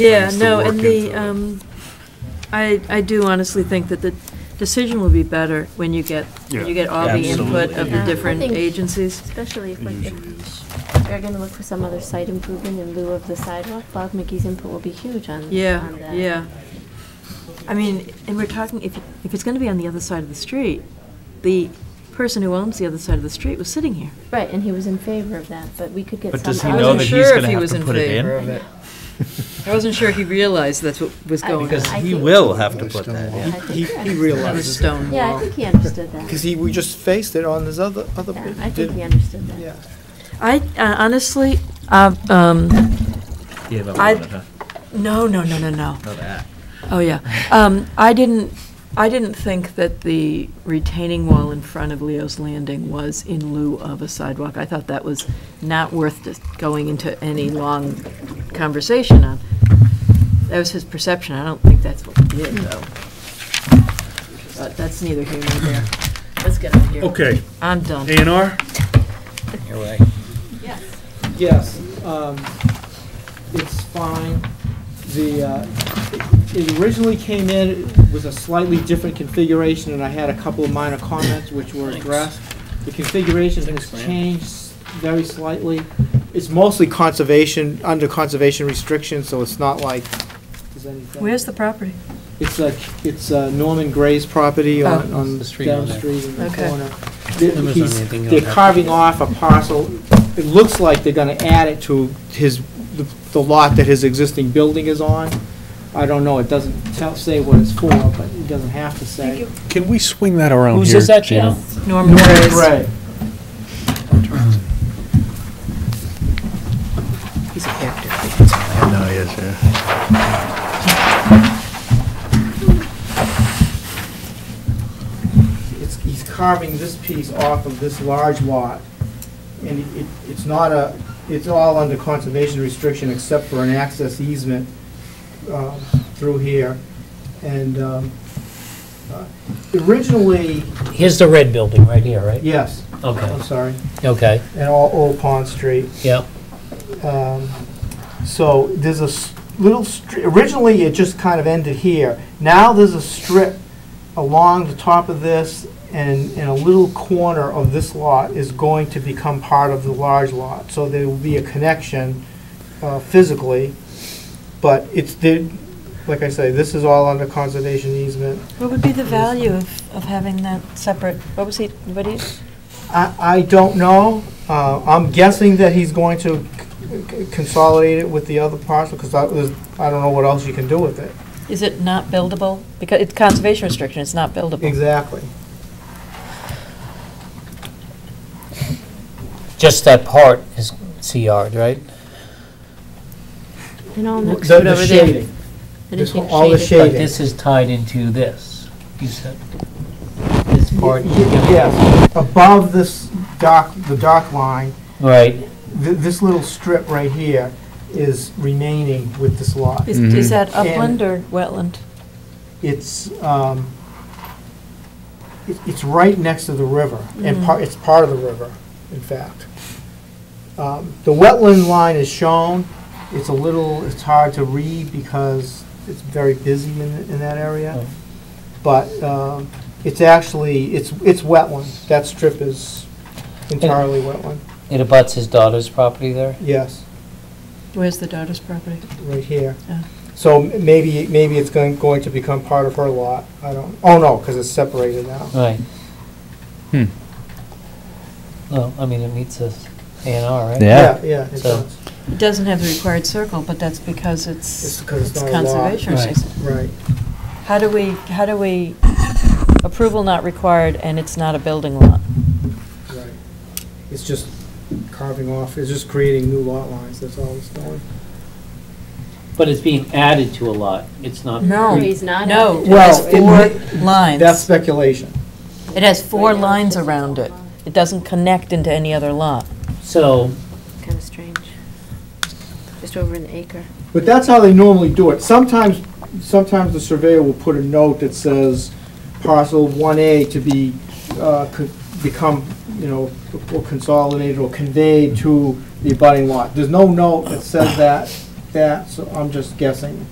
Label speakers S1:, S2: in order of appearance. S1: Yeah,
S2: Needs to
S1: no,
S2: work
S1: and the,
S2: into it.
S1: um, I, I do honestly think that the decision will be better when you get, when you
S2: Yeah,
S1: get all the input of
S2: absolutely.
S1: the
S2: Yeah, I
S1: different
S3: think-
S1: agencies.
S3: Especially if
S2: It
S3: like,
S2: usually
S3: if
S2: is.
S3: they're gonna look for some other site improvement in lieu of the sidewalk, Bob McGee's input will be huge on, on that.
S1: Yeah, yeah. I mean, and we're talking, if, if it's gonna be on the other side of the street, the person who owns the other side of the street was sitting here.
S3: Right, and he was in favor of that, but we could get some.
S4: But does he
S1: I
S4: know
S1: wasn't
S4: that
S1: sure
S4: he's
S1: if
S4: gonna
S1: he
S4: have
S1: was
S4: to
S1: in
S4: put it
S1: favor
S4: in?
S1: of it. I wasn't sure he realized that's what was
S3: I-
S1: going on.
S4: Because
S3: I
S4: he
S3: think-
S4: will have to put that
S3: I
S4: in.
S3: think
S5: He,
S3: he
S5: he
S3: understood.
S1: That was
S5: realizes,
S1: stone
S3: Yeah, I
S1: wall.
S3: think he understood that.
S5: because he, we just faced it on this other, other.
S3: Yeah,
S5: bit,
S3: I think
S5: didn't-
S3: he understood that.
S5: Yeah.
S1: I, uh, honestly, uh, um,
S4: Gave up
S1: I-
S4: on it, huh?
S1: no, no, no, no, no.
S4: Know that.
S1: Oh, yeah. Um, I didn't, I didn't think that the retaining wall in front of Leo's Landing was in lieu of a sidewalk. I thought that was not worth dis- going into any long conversation on. That was his perception. I don't think that's what he did, though. But that's neither here nor there. Let's get out of here.
S2: Okay,
S1: I'm done.
S2: A and R?
S5: Yes, um, it's fine. The, uh, it originally came in with a slightly different configuration, and I had a couple of minor comments which were addressed. The configuration has changed very slightly. It's mostly conservation, under conservation restrictions, so it's not like, there's anything.
S1: Where's the property?
S5: It's like, it's uh, Norman Gray's property on,
S1: Oh.
S5: on
S6: The street
S5: down
S6: on
S5: the
S6: there.
S5: street in the
S1: Okay.
S5: corner.
S6: There
S5: They-
S6: was
S5: he's-
S6: anything on
S5: They're
S6: that.
S5: carving off a parcel, it looks like they're gonna add it to his, the- the lot that his existing building is on. I don't know, it doesn't tell, say what it's for, but it doesn't have to say.
S7: Can we swing that around here?
S6: Who's this at
S7: Gina?
S6: now?
S1: Norman Gray's.
S5: Right.
S1: He's a character.
S2: No, yes, yeah.
S5: it's, he's carving this piece off of this large lot, and it, it's not a, it's all under conservation restriction except for an access easement uh, through here, and um, uh, originally,
S6: Here's the red building right here, right?
S5: yes, I'm
S6: Okay,
S5: sorry,
S6: okay,
S5: and all Old Pond Street.
S6: yeah.
S5: Um, So there's a s- little, str- originally it just kind of ended here. Now there's a strip along the top of this and, and a little corner of this lot is going to become part of the large lot. So there will be a connection uh, physically, but it's, the- like I say, this is all under conservation easement.
S1: What would be the value of, of having that separate, what was he, what he?
S5: I, I don't know. Uh, I'm guessing that he's going to c- c- consolidate it with the other parcel, because I was, I don't know what else you can do with it.
S1: Is it not buildable? Because it's conservation restriction, it's not buildable.
S5: Exactly.
S6: Just that part is CR'd, right?
S3: And all
S5: The
S3: that.
S5: the shading,
S3: And
S5: this
S3: it gets
S5: one- all the
S3: shaded.
S6: But
S5: Shading.
S6: this is tied into this, you said. This
S5: Y-
S6: part.
S5: y- yes, above this dock, the dock line,
S6: Right,
S5: th- this little strip right here is remaining with this lot.
S1: Is, is
S7: Mhm.
S1: that
S5: And-
S1: upland or wetland?
S5: It's, um, it- it's right next to the river, and part, it's part of the river, in fact. Um, The wetland line is shown, it's a little, it's hard to read because it's very busy in, in that area.
S6: Oh.
S5: But, um, it's actually, it's, it's wetland, that strip is entirely wetland,
S6: it abuts his daughter's property there?
S5: yes,
S1: Where's the daughter's property?
S5: right here.
S1: Yeah.
S5: So m- maybe, maybe it's going, going to become part of her lot, I don't, oh no, because it's separated now.
S6: Right.
S7: Hmm.
S6: Well, I mean, it meets us A and R, right?
S7: Yeah.
S5: Yeah, it
S6: So-
S5: does,
S1: It doesn't have the required circle, but that's because
S5: it's
S1: it's,
S5: because it's
S1: it's
S5: not a lot.
S1: conservation
S6: Right.
S1: restriction.
S5: Right,
S1: How do we, how do we, approval not required and it's not a building lot?
S5: right. It's just carving off, it's just creating new lot lines, that's all it's doing.
S6: But it's being added to a lot, it's not.
S3: No, he's not.
S1: No, it
S5: Well,
S1: has four
S5: That's
S1: lines.
S5: speculation.
S1: It has four
S3: Right now, it's
S1: lines
S3: just
S1: around it. It doesn't connect into any other lot.
S6: So,
S3: Kind of strange. Just over an acre.
S5: But that's how they normally do it. Sometimes, sometimes the surveyor will put a note that says parcel one A to be, uh, could become, you know, or consolidated or conveyed to the abutting lot. There's no note that says that that, so I'm just guessing.